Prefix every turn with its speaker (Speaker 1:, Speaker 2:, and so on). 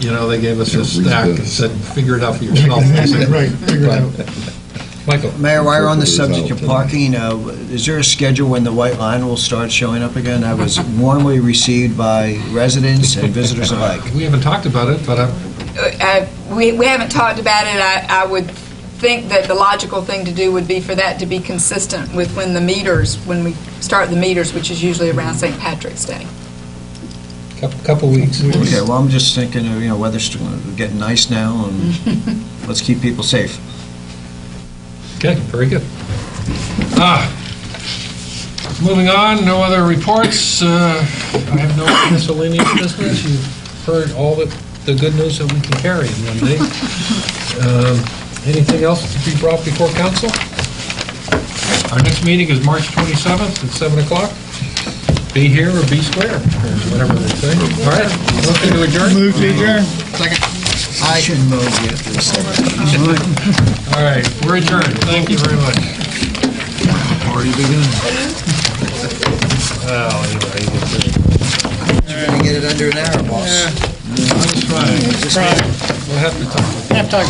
Speaker 1: you know, they gave us
Speaker 2: Yeah,
Speaker 1: a stack
Speaker 2: read
Speaker 1: and
Speaker 2: this.
Speaker 1: said, figure it out for yourself.
Speaker 3: Exactly, right, figure it out.
Speaker 4: Michael,
Speaker 5: Mayor, while we're on the subject of parking, uh, is there a schedule when the white line will start showing up again? I was warmly received by residents and visitors alike.
Speaker 1: We haven't talked about it, but I-
Speaker 6: Uh, We we haven't talked about it. I I would think that the logical thing to do would be for that to be consistent with when the meters, when we start the meters, which is usually around St. Patrick's Day.
Speaker 4: couple, couple weeks.
Speaker 5: Okay, well, I'm just thinking, of you know, weather's getting nice now, and let's keep people safe.
Speaker 1: Okay, very good. Ah, Moving on, no other reports. Uh,
Speaker 4: I have no miscellaneous business. You've heard all the, the good news that we can carry in one day. Um, Anything else to be brought before council? Our next meeting is March 27th at 7 o'clock. Be here or be square, or whatever they say. All right, looking to adjourn?
Speaker 3: Move to adjourn.
Speaker 5: I shouldn't mow yet this summer.
Speaker 1: All right, we're adjourned. Thank you very much.
Speaker 5: You're gonna get it under an hour,
Speaker 1: I
Speaker 5: boss.
Speaker 1: was trying. We'll have to talk.
Speaker 3: Half-time.